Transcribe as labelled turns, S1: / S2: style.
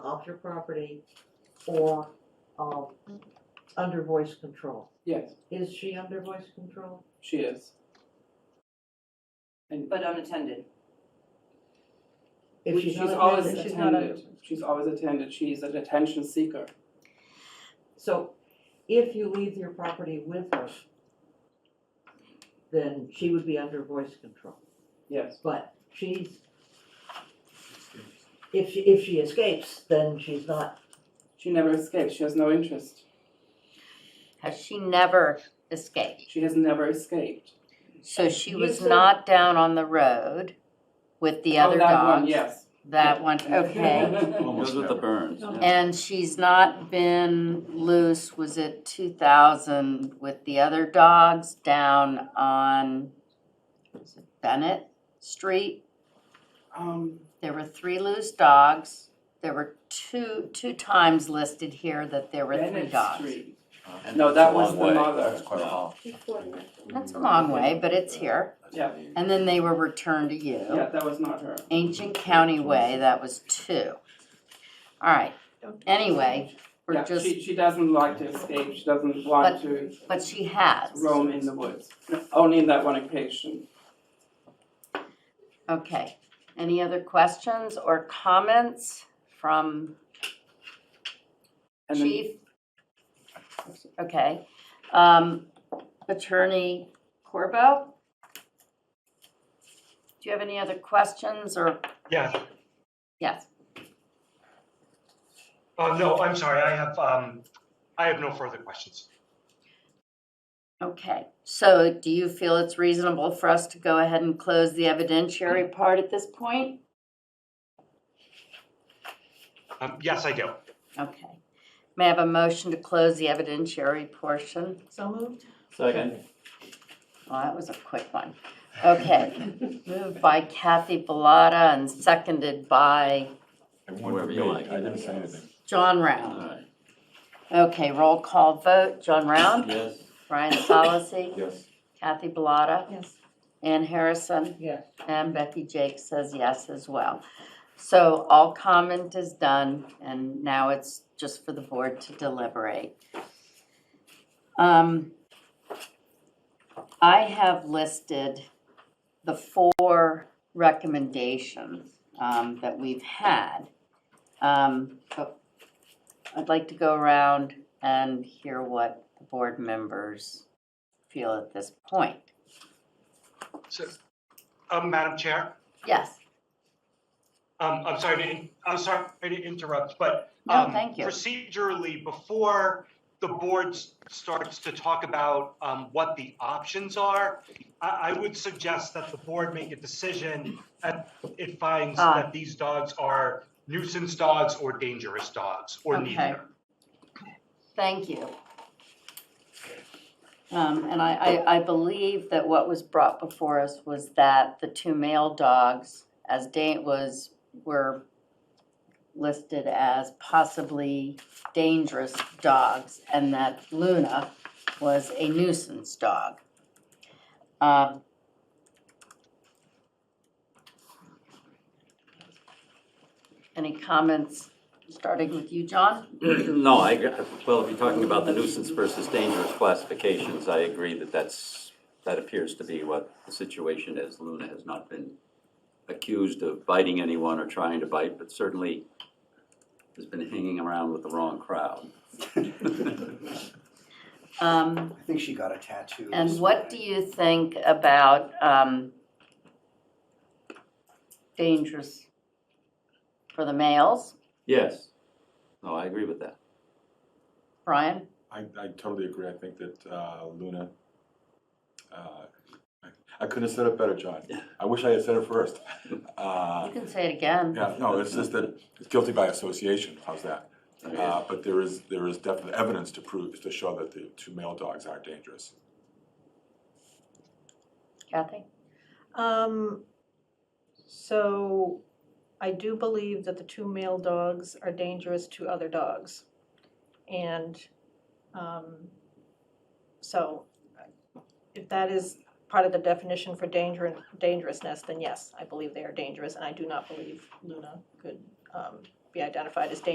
S1: off your property or, um, under voice control.
S2: Yes,
S1: Is she under voice control?
S2: she is.
S3: but unattended.
S1: If
S2: We-
S1: she's
S2: she's
S1: not
S2: always
S1: attending, she's not
S2: attended. She's always attended. She's an attention seeker.
S1: So if you leave your property with her, then she would be under voice control.
S2: Yes,
S1: But she's, if she, if she escapes, then she's not,
S2: she never escapes. She has no interest.
S4: Has she never escaped?
S2: She has never escaped.
S4: So she
S1: You
S4: was
S1: said-
S4: not down on the road with the other
S2: oh, that
S4: dogs?
S2: one, yes.
S4: That one, okay.
S5: Those with the burns,
S1: No.
S5: yeah.
S4: And she's not been loose, was it two thousand with the other dogs down on was it Bennett Street?
S2: um,
S4: There were three loose dogs. There were two, two times listed here that there were three
S2: Bennett
S4: dogs.
S2: Street.
S5: And
S2: No,
S5: it's
S2: that
S5: a
S2: was
S5: long
S2: the
S5: way.
S2: mother.
S5: That's quite a haul.
S4: That's a long way, but it's here.
S2: Yeah.
S4: And then they were returned to you.
S2: Yeah, that was not her.
S4: Ancient County Way, that was two. All right, anyway, we're
S2: yeah,
S4: just,
S2: she, she doesn't like to escape. She doesn't want to
S4: but she has.
S2: roam in the woods. Only in that one occasion.
S4: Okay, any other questions or comments from
S2: And then-
S4: Chief? Okay, um, Attorney Corbo? Do you have any other questions or,
S6: Yeah,
S4: yes,
S6: uh, no, I'm sorry, I have, um, I have no further questions.
S4: okay. So do you feel it's reasonable for us to go ahead and close the evidentiary part at this point?
S6: Um, yes, I do.
S4: Okay. May I have a motion to close the evidentiary portion?
S7: So moved?
S5: Second,
S4: Well, that was a quick one. Okay. Moved by Kathy Bellata and seconded by
S5: whoever you like.
S8: I didn't say anything.
S4: John
S5: All
S4: Round.
S5: right.
S4: Okay, roll call vote. John Round,
S5: Yes,
S4: Brian Solacey,
S8: Yes.
S4: Kathy Bellata,
S7: Yes.
S4: Ann Harrison,
S1: yes.
S4: and Becky Jake says yes as well. So all comment is done, and now it's just for the board to deliberate. Um, I have listed the four recommendations um, that we've had. Um, but I'd like to go around and hear what the board members feel at this point.
S6: So, um, Madam Chair,
S4: Yes?
S6: um, I'm sorry to, in- I'm sorry to interrupt, but.
S4: No,
S6: um,
S4: thank you.
S6: Procedurally, before the board s- starts to talk about, um, what the options are, I, I would suggest that the board make a decision that it finds
S4: Ah.
S6: that these dogs are nuisance dogs or dangerous dogs, or
S4: Okay.
S6: neither.
S4: Thank you. Um, and I, I, I believe that what was brought before us was that the two male dogs, as date was, were listed as possibly dangerous dogs, and that Luna was a nuisance dog. Um, Any comments, starting with you, John?
S5: no, I, ag- well, if you're talking about the nuisance versus dangerous classifications, I agree that that's, that appears to be what the situation is. Luna has not been accused of biting anyone or trying to bite, but certainly has been hanging around with the wrong crowd.
S4: Um,
S9: I think she got a tattoo.
S4: And what do you think about um, dangerous for the males?
S5: Yes, no, I agree with that.
S4: Brian?
S8: I, I totally agree. I think that uh, Luna, uh, I- I couldn't have said it better, John. I wish I had said it first. Uh,
S4: You can say it again.
S8: Yeah, no, it's just that it's guilty by association. How's that? Uh, But there is, there is definite evidence to prove, to show that the two male dogs are dangerous.
S4: Kathy?
S7: Um, so I do believe that the two male dogs are dangerous to other dogs. And, um, so if that is part of the definition for danger, dangerousness, then yes, I believe they are dangerous. And I do not believe Luna could, um, be identified as dangerous